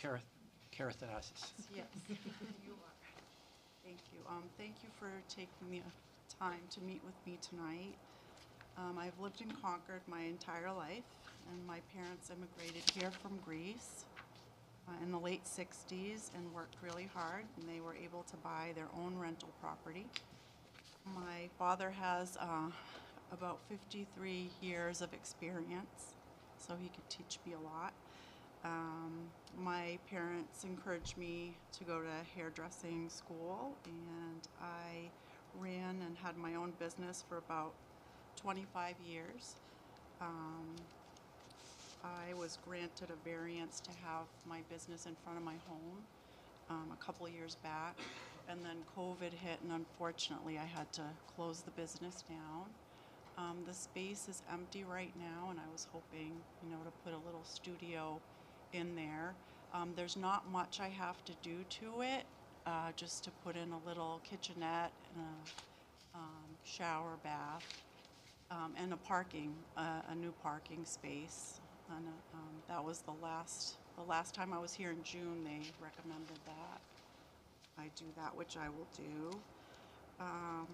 Kerath- keratinosis. Yes, you are. Thank you. Um, Thank you for taking the time to meet with me tonight. Um, I've lived in Concord my entire life, and my parents immigrated here from Greece uh, in the late 60s and worked really hard, and they were able to buy their own rental property. My father has uh, about 53 years of experience, so he could teach me a lot. Um, my parents encouraged me to go to hairdressing school, and I ran and had my own business for about 25 years. Um, I was granted a variance to have my business in front of my home um, a couple years back, and then COVID hit, and unfortunately, I had to close the business down. Um, the space is empty right now, and I was hoping, you know, to put a little studio in there. Um, there's not much I have to do to it, uh, just to put in a little kitchenette and a um, shower bath um, and a parking, uh, a new parking space. And uh, um, that was the last, the last time I was here in June, they recommended that I do that, which I will do. Um,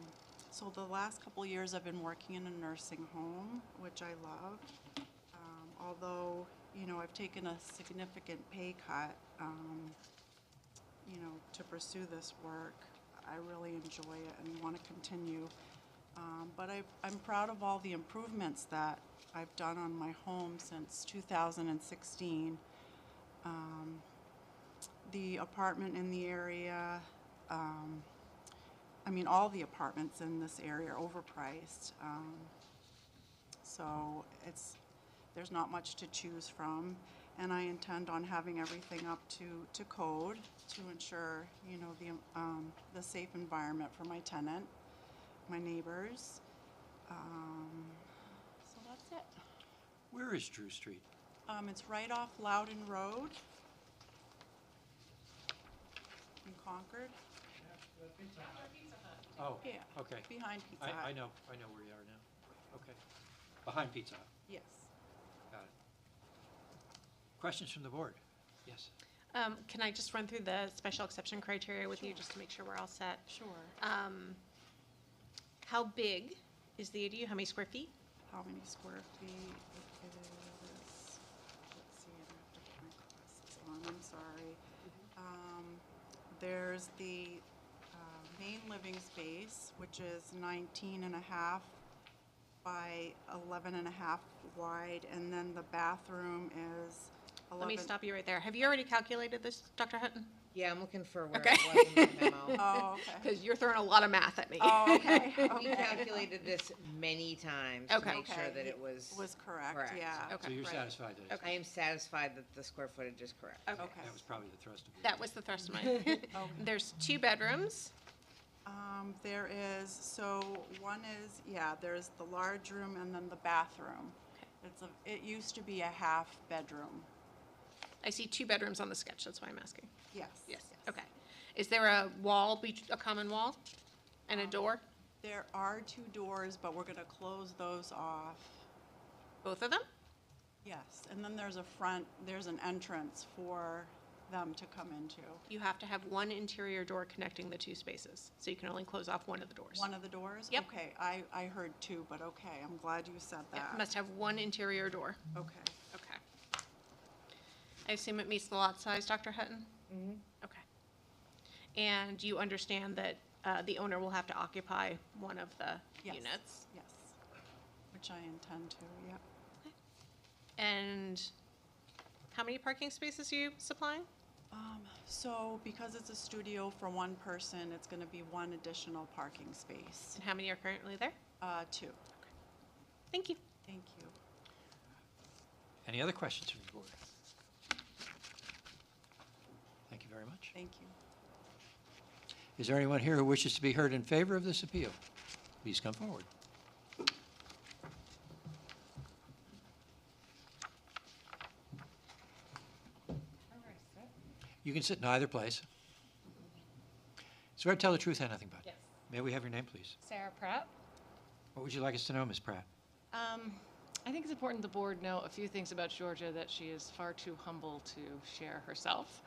so the last couple years, I've been working in a nursing home, which I love. Um, although, you know, I've taken a significant pay cut, um, you know, to pursue this work. I really enjoy it and want to continue. Um, but I, I'm proud of all the improvements that I've done on my home since 2016. Um, the apartment in the area, um, I mean, all the apartments in this area are overpriced. Um, so it's, there's not much to choose from. And I intend on having everything up to, to code to ensure, you know, the, um, the safe environment for my tenant, my neighbors. Um, so that's it. Where is Drew Street? Um, it's right off Loudon Road in Concord. Oh, Yeah. okay. Behind Pizza Hut. I, I know, I know where you are now. Okay. Behind Pizza Hut, Yes. got it. Questions from the board? Yes. Um, Can I just run through the special exception criteria with you, just to make sure we're all set? Sure. Um, How big is the ADU? How many square feet? How many square feet it is? Let's see, I have to put my glasses on, I'm sorry. Um, there's the, uh, main living space, which is 19 and a half by 11 and a half wide, and then the bathroom is eleven. Let me stop you right there. Have you already calculated this, Dr. Hutton? Yeah, I'm looking for where Okay. it was in the memo. Oh, okay. Because you're throwing a lot of math at me. Oh, okay, We okay. calculated this many times to Okay. make sure Okay. that it was, Was correct, Correct. yeah. Okay. So you're Uh, right. satisfied that it's, I am satisfied that the square footage is correct. Okay. Okay. that was probably the thrust of it. That was the thrust of mine. There's two bedrooms. Um, there is, so one is, yeah, there's the large room and then the bathroom. It's a, it used to be a half bedroom. I see two bedrooms on the sketch, that's why I'm asking. Yes. Okay. Is there a wall, bet- a common wall and a door? There are two doors, but we're gonna close those off. Both of them? Yes, and then there's a front, there's an entrance for them to come into. You have to have one interior door connecting the two spaces, so you can only close off one of the doors. One of the doors? Yep. Okay, I, I heard two, but okay, I'm glad you said Yeah, that. Must have one interior door. Okay. Okay. I assume it meets the lot size, Dr. Hutton? Mhm. Okay. And you understand that uh, the owner will have to occupy one of the Yes. units? Yes, which I intend to, yep. And how many parking spaces are you supplying? Um, so because it's a studio for one person, it's gonna be one additional parking space. And how many are currently there? Uh, two, Thank you. thank you. Any other questions from the board? Thank you very much. Thank you. Is there anyone here who wishes to be heard in favor of this appeal? Please come forward. You can sit in either place. Swear to tell the truth and nothing but. it. May we have your name, please? Sarah Pratt. What would you like us to know, Ms. Pratt? Um, I think it's important the board know a few things about Georgia that she is far too humble to share herself.